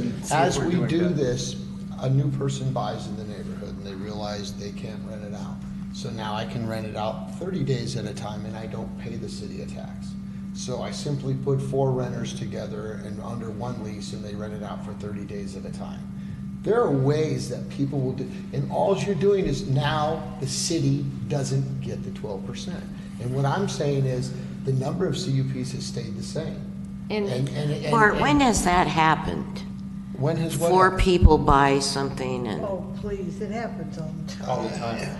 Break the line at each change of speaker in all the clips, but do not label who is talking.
see if
As
we're
we
doing
do
that.
this, a new person buys in the neighborhood and they realize they can't rent it out. So now I can rent it out thirty days at a time and I don't pay the city a tax. So I simply put four renters together and under one lease and they rent it out for thirty days at a time. There are ways that people will do, and all you're doing is now the city doesn't get the twelve percent. And what I'm saying is, the number of CUPs has stayed the same. And- and-
And
and-
Bart,
and-
when has that happened?
When has what?
Four
happened?
people buy something and,
Oh, please, it happens all the time.
all the time.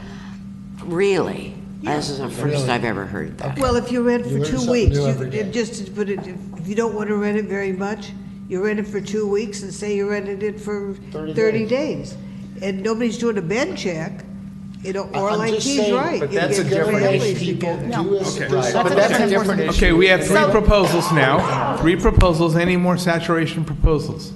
really? This is the first
Really?
I've ever heard that.
Well, if you rent
You
for
learn
two
something
weeks,
new
you-
every day.
it just to put it, if if you don't want to rent it very much, you rent it for two weeks and say you rented it for
30
thirty days. And nobody's doing a bed check, you know, or
I'm
like
just
he's
saying,
right.
but
you
that's
get
a different
families
If people
together.
do as-
Okay.
Right.
But that's a different issue.
Okay, we have three
So-
proposals now, three proposals, any more saturation proposals?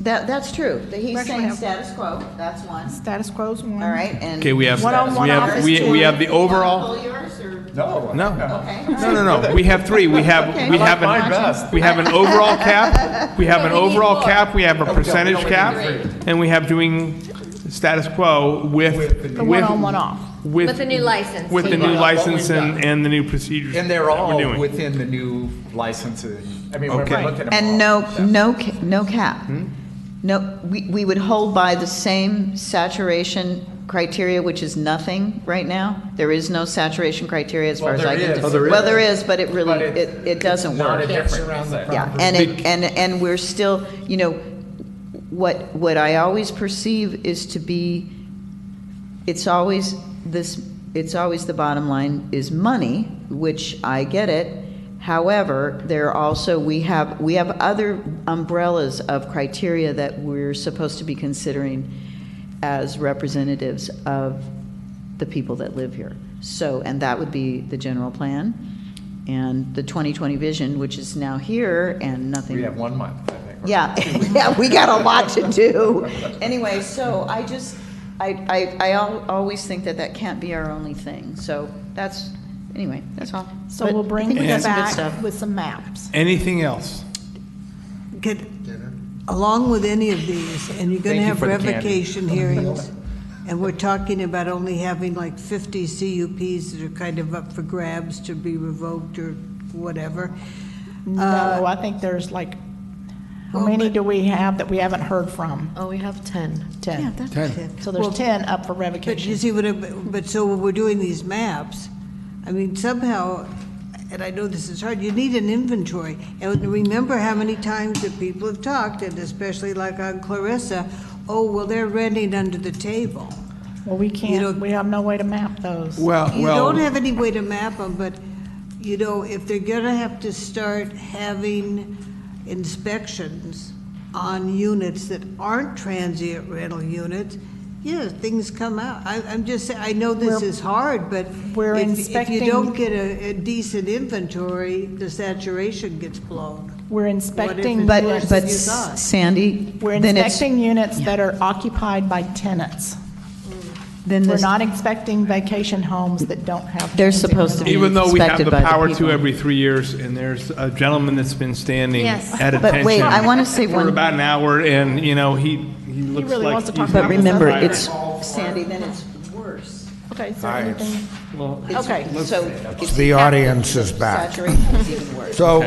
That, that's true. That He's
actually
saying
have-
status quo, that's one,
Status quo's one.
all right, and.
Okay, we have,
One-on-one
we have,
office
we we
two.
have the overall,
Pull yours, or?
No.
no,
Okay.
no, no, no, we have three, we have, we
I like
have
mine
an,
best.
we have an overall cap, we have an
No, we need
overall
more.
cap, we have a
we
percentage
don't need
cap,
three.
and we have doing status quo with,
With the
with.
new- The
one-on-one off.
With
With the new license.
With the
What
new
we've
license and,
done.
and the new procedures.
And they're
that we're
all
doing.
within the new licensing. I mean, we're
Okay.
looking at them all.
And no, no, ca- no cap. No, we, we would hold by the same saturation criteria, which is nothing right now. There is no saturation criteria as far
Well,
as I
there
can
is.
tell.
Oh, there is.
Well, there is, but it really,
But it's-
it, it doesn't
Not a
work.
different.
around the
Yeah, and it, and, and we're still, you know, what, what I always perceive is to be, it's always this, it's always the bottom line is money, which I get it. However, there are also, we have, we have other umbrellas of criteria that we're supposed to be considering as representatives of the people that live here. So, and that would be the general plan and the 2020 vision, which is now here and nothing.
We have one month, I think. or
Yeah, yeah, we got a lot to do. Anyway, so I just, I, I, I al- always think that that can't be our only thing, so that's, anyway, that's all.
So
But
we'll
I
bring
think we got
this
some good stuff.
back with some maps.
Anything else?
Get- Along with any of these, and you're
Thank
gonna
you
have
for the candy.
revocation hearings, and we're talking about only having like fifty CUPs that are kind of up for grabs to be revoked or whatever.
No, I think there's like, how
well,
many
but-
do we have that we haven't heard from?
Oh, we have 10.
Ten.
Ten.
So there's ten up for
But you
revocation.
see what, I- but so when we're doing these maps, I mean, somehow, and I know this is hard, you need an inventory. And remember how many times that people have talked, and especially like on Clarissa, oh, well, they're renting under the table.
Well, we
know-
can't, we have no way to map those.
Well,
You
well,
don't have any way to map them, but, you know, if they're gonna have to start having inspections on units that aren't transient rental units, yeah, things come out. I, I'm just, saying I know this
We're-
is hard, but
We're
if, if you
inspecting-
don't get a, a decent inventory, the saturation gets blown.
We're inspecting,
it's-
but
But, but
You thought.
Sandy,
we're
then it's,
inspecting units that are occupied by tenants.
then
We're
this,
not inspecting vacation homes that don't have.
They're
tenants in
supposed
them.
to be
even though we have
inspected
the
by the
power to
people.
every three years, and there's a gentleman that's been standing
Yes.
at
But wait,
attention
I wanna say
for
one-
about an hour, and, you know, he, he looks
really
like
wants to
he's
talk
got
but
about
the
remember,
fire.
it's, Sandy, then it's worse.
Okay, is there anything?
It's-
Okay.
So. it's-
The audience is back.
Saturation is even worse.
So,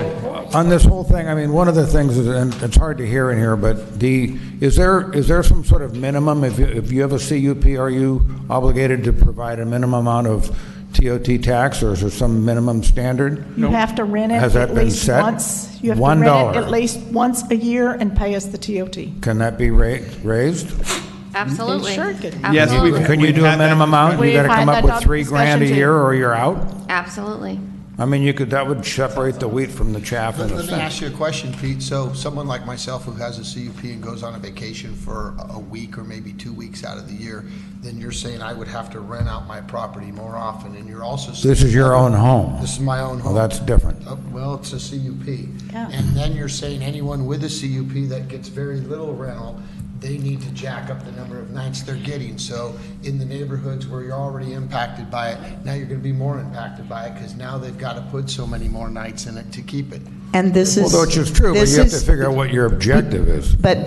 on this whole thing, I mean, one of the things, is- and it's hard to hear in here, but the, is there, is there some sort of minimum? If you, if you have a CUP, are you obligated to provide a minimum amount of TOT tax, or is there some minimum standard?
You have to rent it
Has that
at
been
least
set?
once. You have to
One
rent it
dollar.
At least once a year and pay us the TOT.
Can that be ra- raised?
Absolutely.
Sure it could.
Yes,
Absolutely.
we've-
Can you do a
had that
minimum amount? You
We've
gotta
had
come
that
up with
doc-
three grand a
discussion too.
year, or you're out?
Absolutely.
I mean, you could, that would separate the wheat from the chaff in
Let
a
let me
sense.
ask you a question, Pete. So someone like myself who has a CUP and goes on a vacation for a- a week or maybe two weeks out of the year, then you're saying I would have to rent out my property more often, and you're also. saying-
This is your own home.
This is my own
Well,
home.
that's different.
Uh, Well, it's a CUP.
Yeah.
And then you're saying anyone with a CUP that gets very little rental, they need to jack up the number of nights they're getting. So in the neighborhoods where you're already impacted by it, now you're gonna be more impacted by it because now they've got to put so many more nights in it to keep it.
And this is.
Although it's just true, but
this
you have to
is-
figure out what your objective is.
But